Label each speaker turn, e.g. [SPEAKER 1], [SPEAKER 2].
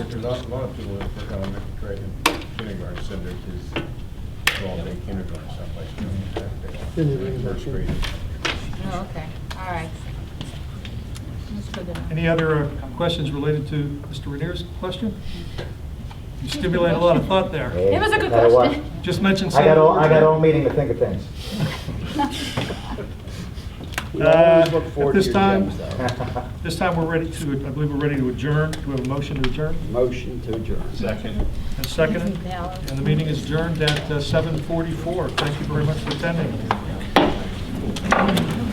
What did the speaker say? [SPEAKER 1] There's a lot, a lot of people that work on elementary grade and kindergarten, so there's this all day kindergarten someplace. you know, that they-
[SPEAKER 2] Then they bring it back
[SPEAKER 1] First
[SPEAKER 2] in.
[SPEAKER 1] grade.
[SPEAKER 3] Oh, okay, all right. That's good to know.
[SPEAKER 4] Any other uh, questions related to Mr. Rainier's question? You stimulated a lot of thought there.
[SPEAKER 3] It was a good
[SPEAKER 5] Tell you what,
[SPEAKER 3] question.
[SPEAKER 4] Just mentioned some.
[SPEAKER 5] I got all, I got all meeting to think of things.
[SPEAKER 2] We always
[SPEAKER 4] Uh,
[SPEAKER 2] look forward to
[SPEAKER 4] at this
[SPEAKER 2] your
[SPEAKER 4] time-
[SPEAKER 2] gems, though.
[SPEAKER 4] This time, we're ready to, I believe we're ready to adjourn. Do we have a motion to adjourn?
[SPEAKER 6] Motion to adjourn.
[SPEAKER 1] Second.
[SPEAKER 4] And seconded. And the meeting is adjourned at uh, 7:44. Thank you very much for attending.